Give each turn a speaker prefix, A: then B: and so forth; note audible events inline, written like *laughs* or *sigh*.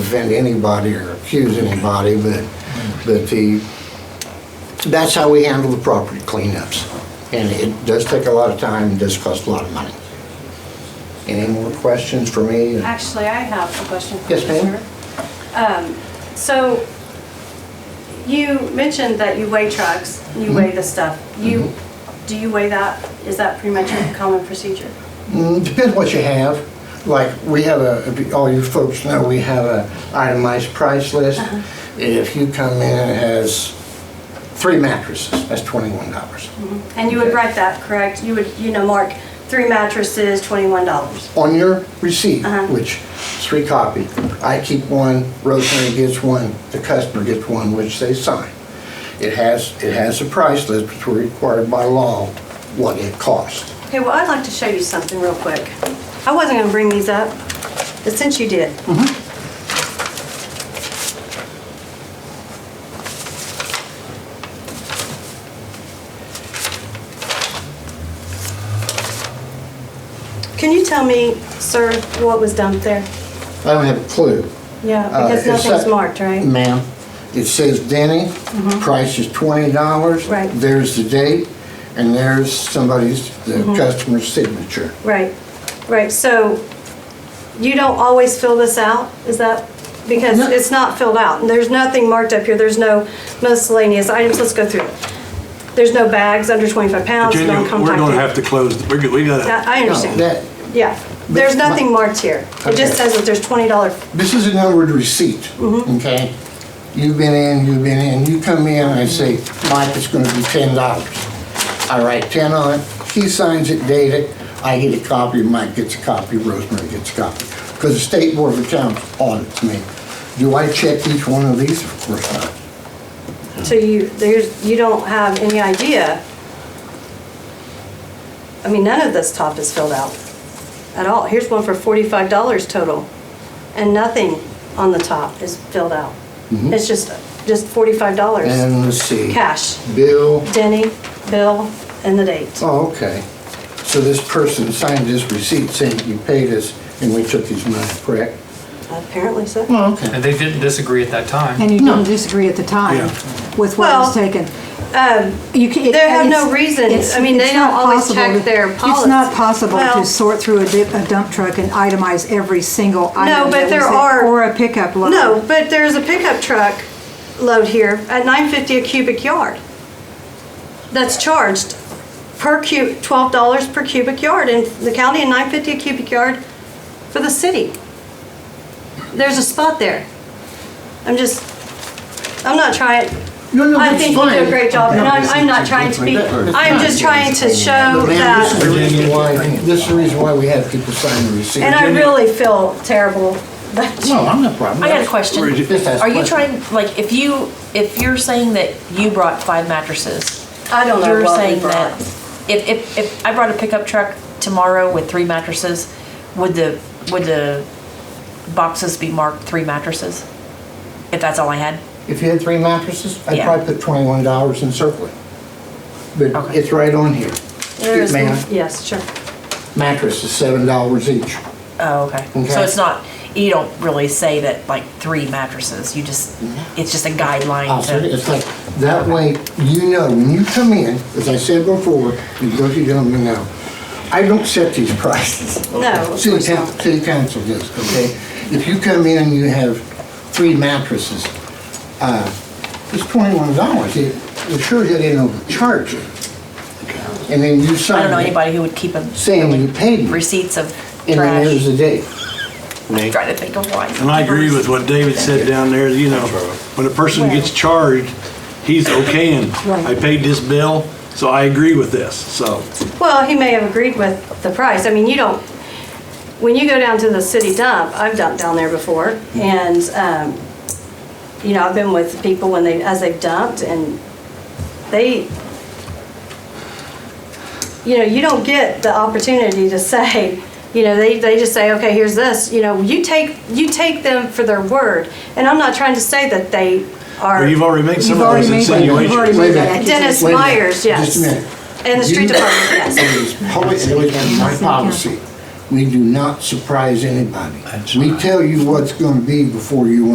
A: defend anybody or accuse anybody, but, but the, that's how we handle the property cleanups. And it does take a lot of time, and does cost a lot of money. Any more questions for me?
B: Actually, I have a question for you,
A: Yes, ma'am.
B: Commissioner. Um, So you mentioned that you weigh trucks,
A: Mm-hmm.
B: you weigh the stuff. You, do you weigh that? Is that pretty much a common procedure?
A: Mm, Depends what you have. Like, we have a, all you folks know, we have a itemized price list. If you come in and it has three mattresses, that's twenty-one dollars.
B: And you would write that, correct? You would, you know, mark three mattresses, $21.
A: On your receipt,
B: Uh-huh.
A: which is three copy, I keep one, Rosemary gets one, the customer gets one, which they sign. It has, it has a price list, which we're required by law, what it costs.
B: Okay, well, I'd like to show you something real quick. I wasn't going to bring these up, but since you did.
A: Mm-hmm.
B: Can you tell me, sir, what was dumped there?
A: I don't have a clue.
B: Yeah,
A: Uh,
B: because
A: it's
B: nothing's
A: that-
B: marked, right? Mm-hmm.
A: Ma'am, it says Denny, price is twenty dollars.
B: Right.
A: There's the date, and there's somebody's, the
B: Mm-hmm.
A: customer's signature.
B: Right, right, so you don't always fill this out, is that, because
A: No.
B: it's not filled out, and there's nothing marked up here, there's no miscellaneous items, let's go through it. There's no bags under 25 pounds,
C: Jenny,
B: no
C: we're gonna have
B: compacted.
C: to close, the- we're gonna- we gotta,
B: I I
A: No,
B: understand,
A: that-
B: yeah, there's
A: my-
B: nothing marked here, it
A: Okay.
B: just says that there's $20,
A: This is a numbered receipt, okay? You've been in, you've been in, you come in, I say, Mike, it's gonna be ten dollars. I write ten on it, he signs it, date it, I get a copy, Mike gets a copy, Rosemary gets a copy. Because the State Board of Accounts audits me. Do I check each one of these? Of course not.
B: so you, there's, you don't have any idea. I mean, none of this top is filled out at all, here's one for $45 total, and nothing on the top is filled out. It's just, just $45
A: Mm-hmm. And let's see.
B: cash.
A: Bill,
B: Denny, bill, and the date.
A: oh, okay. So this person signed this receipt saying you paid us and we took his money, correct?
B: Apparently so.
A: Well, okay.
D: And they didn't disagree at that time.
E: And you didn't disagree at the time with what was
B: Well,
E: taken? You ca- it-
B: they have no
E: it's-
B: reason.
E: it's-
B: I mean, they
E: it's not
B: don't always
E: possible
B: check
E: to-
B: their
E: It's not
B: policy.
E: possible
B: Well-
E: to sort through a dip- a dump truck and itemize every single item.
B: No, but
E: that was
B: there
E: in-
B: are-
E: Or a pickup load.
B: No, but there's a pickup truck load here at 950 a cubic yard. That's charged per cu, $12 per cubic yard in the county and 950 a cubic yard for the city. There's a spot there. I'm just, I'm not trying,
A: No, no,
B: I
A: that's
B: think you do a
A: fine.
B: great job, and I'm,
A: No,
B: I'm not trying to be, I'm just trying to show
A: Ma'am, this is the
B: that,
A: reason why, this is the reason why we have people sign the receipt.
B: and I really feel terrible
A: No,
B: that,
A: I'm not problem.
F: I got a question.
A: Just ask
F: Are you
A: questions.
F: trying, like, if you, if you're saying that you brought five mattresses,
B: I don't know
F: you're
B: what we
F: saying that
B: brought.
F: if, if, if I brought a pickup truck tomorrow with three mattresses, would the, would the boxes be marked three mattresses? If that's all I had?
A: If you had three mattresses, I'd
F: Yeah.
A: probably put twenty-one dollars in circle. it. But
F: Okay.
A: it's right on here.
B: There is,
A: Ma'am.
B: yes, sure.
A: Mattress is seven dollars each.
F: Oh, okay.
A: Okay.
F: So it's not, you don't really say that, like, three mattresses, you just, it's just a
A: I'll
F: guideline
A: say Oh, it,
F: to.
A: it's like, that way, you know, when you come in, as I said before, you go to gentlemen know, I don't set these *laughs* prices.
B: No, of
A: City
B: course
A: coun-
B: not.
A: city council does, okay? If you come in and you have three mattresses, uh, it's twenty-one dollars, it, it sure they didn't overcharge you. And then you
F: I don't know
A: sign it,
F: anybody who would keep a
A: saying you paid me,
F: receipts of
A: and then there's
F: trash.
A: the date.
F: Trying to think of why.
C: and I agree with what David said down there, you know, when a person gets charged, he's okaying,
E: Right.
C: I paid this bill, so I agree with this, so.
B: Well, he may have agreed with the price. I mean, you don't, when you go down to the city dump, I've dumped down there before, and, um, you know, I've been with people when they, as they've dumped, and they, you know, you don't get the opportunity to say, you know, they, they just say, okay, here's this, you know, you take, you take them for their word. And I'm not trying to say that they are,
C: But you've already made some
E: You've
C: of
E: already
C: those
E: made that- you've already
C: insinuations.
E: made that
A: Wait a minute.
B: Dennis
A: Wait a minute.
B: Myers, yes.
A: Just a minute.
B: and the street
C: *coughs*
A: You-
B: department, yes.
A: It was policy, it was my policy. We do not surprise anybody.
G: That's
A: We
G: right.
A: tell you what's gonna be before you